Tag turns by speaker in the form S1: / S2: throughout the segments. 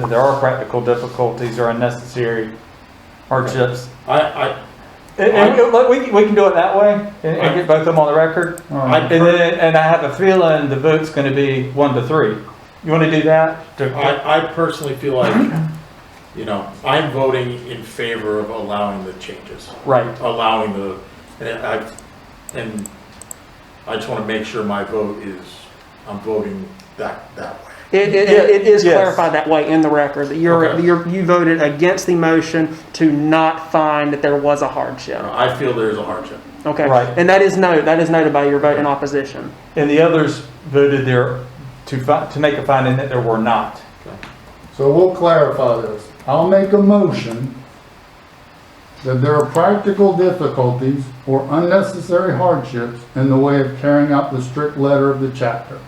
S1: that there are practical difficulties or unnecessary hardships.
S2: I, I,
S1: And, and we- look, we, can- we can do it that way and, and get both of them on the record. And
S2: I'd, per-
S1: then, and I have a feeling the vote's gonna be one to three. You wanna do that? To-
S2: I, I personally feel like, you know, I'm voting in favor of allowing the changes,
S1: Right,
S2: allowing the, and I, and I just want to make sure my vote is, I'm voting that, that way.
S3: It, it, it is
S1: Yes.
S3: clarified that way in the record, that you're,
S2: Okay.
S3: you're, you voted against the motion to not find that there was a hardship.
S2: I feel there is a hardship.
S3: Okay?
S1: Right.
S3: And that is noted, that is noted by your vote in opposition.
S1: and the others voted there to fi, to make a finding that there were not.
S4: So we'll clarify this. I'll make a motion that there are practical difficulties or unnecessary hardships in the way of carrying out the strict letter of the chapter.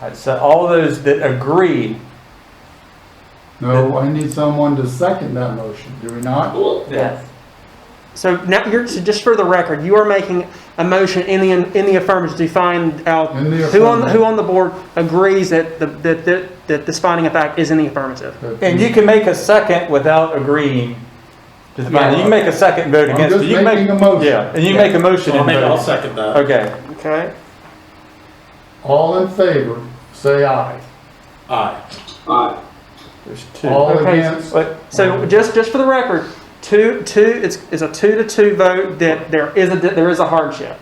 S1: Alright, So all those that agree,
S4: No, I need someone to second that motion, do we not?
S1: Yes.
S3: So now, you're, so just for the record, you are making a motion in the, in the affirmative to find out
S4: In the
S3: who on,
S4: affirmative.
S3: who on the board agrees that, the- that, that, that this finding of fact is in the affirmative.
S1: and you can make a second without agreeing to the finding. You can make a second vote
S4: I'm
S1: against it.
S4: just
S1: You can make-
S4: making a motion.
S1: Yeah, and you make a motion
S2: So I'll
S1: and
S2: make, I'll
S1: vote.
S2: second that.
S1: Okay,
S3: Okay?
S4: All in favor, say aye.
S2: Aye.
S1: there's two.
S4: All
S3: Okay.
S4: against,
S1: But
S3: So just, just for the record, two, two, it's, it's a two to two vote that there is a, that there is a hardship.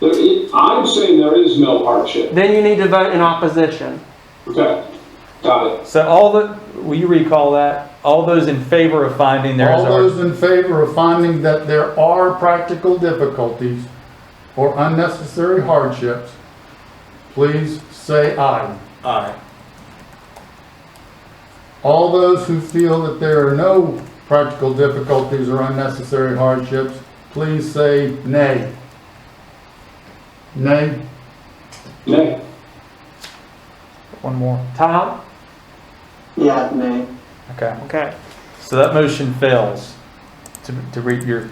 S5: There i- I'm saying there is no hardship.
S3: Then you need to vote in opposition.
S5: Okay, got it.
S1: So all the, will you recall that? All those in favor of finding there is
S4: all
S1: a,
S4: those in favor of finding that there are practical difficulties or unnecessary hardships, please say aye.
S2: Aye.
S4: All those who feel that there are no practical difficulties or unnecessary hardships, please say nay. Nay?
S5: Nay,
S1: one more.
S3: Tom?
S6: Yeah, nay.
S1: Okay,
S3: Okay.
S1: so that motion fails to, to read your,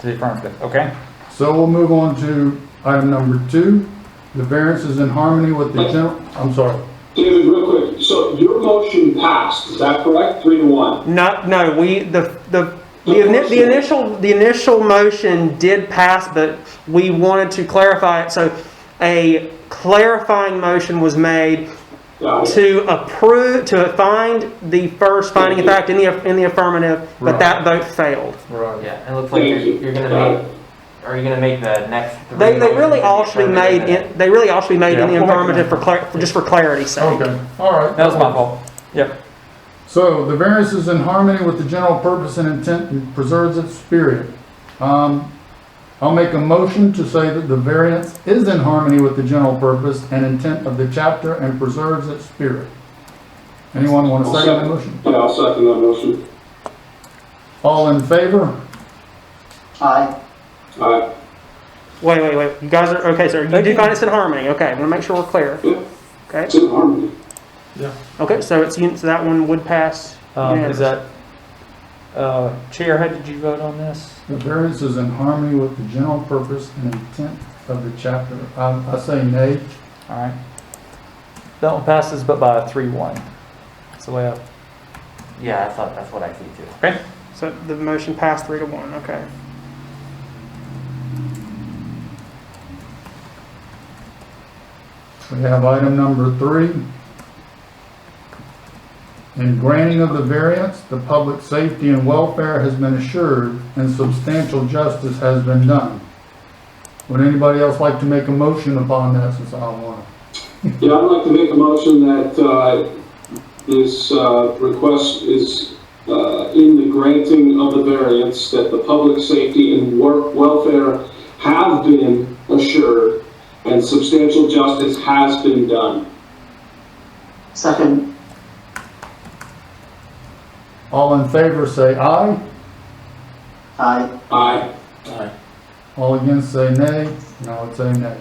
S1: to the affirmative, okay?
S4: So we'll move on to item number two. The variance is in harmony with
S1: Oh.
S4: the general, I'm sorry.
S5: David, real quick, so your motion passed, is that correct? Three to one?
S3: No, no, we, the, the, the ini- the initial, the initial motion did pass, but we wanted to clarify it. So a clarifying motion was made
S5: Got it.
S3: to approve, to find the first finding of fact in the, in the affirmative, but that vote failed.
S4: Right.
S7: Yeah, it looks like
S5: Thank
S7: you're,
S5: you.
S7: you're
S5: Got
S7: gonna
S5: it.
S7: make, are you gonna make the next three?
S3: They, they really
S7: motions
S3: all should be made,
S7: affirmative?
S3: in- they really all should be made in the
S1: Yeah.
S3: affirmative for clar, for- just for clarity's sake.
S4: Okay, all right.
S1: That was my fault. Yep,
S4: So the variance is in harmony with the general purpose and intent and preserves its spirit. Um, I'll make a motion to say that the variance is in harmony with the general purpose and intent of the chapter and preserves its spirit. Anyone want to second the motion?
S5: Yeah, I'll second that motion.
S4: All in favor?
S6: Aye.
S5: Aye.
S3: Wait, wait, wait, you guys are, okay, so you
S1: Thank
S3: do
S1: you.
S3: find it's in harmony, okay, I wanna make sure we're clear,
S5: Yeah,
S3: okay?
S5: it's in harmony.
S3: Okay, so it's, un- so that one would pass.
S1: um, is
S3: unanimously.
S1: that, uh, Chair, how did you vote on this?
S4: The variance is in harmony with the general purpose and intent of the chapter. I, I say nay.
S1: All right. That one passes but by a three one. That's the way I,
S7: Yeah, I thought, that's what I see too.
S3: So the motion passed three to one, okay.
S4: We have item number three. In granting of the variance, the public safety and welfare has been assured and substantial justice has been done. Would anybody else like to make a motion upon that since I don't want to?
S5: Yeah, I'd like to make a motion that uh, this uh, request is uh, in the granting of the variance, that the public safety and work welfare have been assured, and substantial justice has been done.
S6: Second.
S4: All in favor, say aye.
S6: Aye.
S5: Aye.
S2: Aye.
S4: All against, say nay. And I would say nay.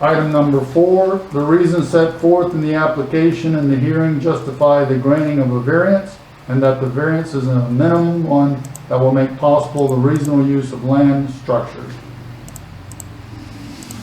S4: Item number four, the reasons set forth in the application and the hearing justify the granting of a variance, and that the variance is a minimum one that will make possible the reasonable use of land structures.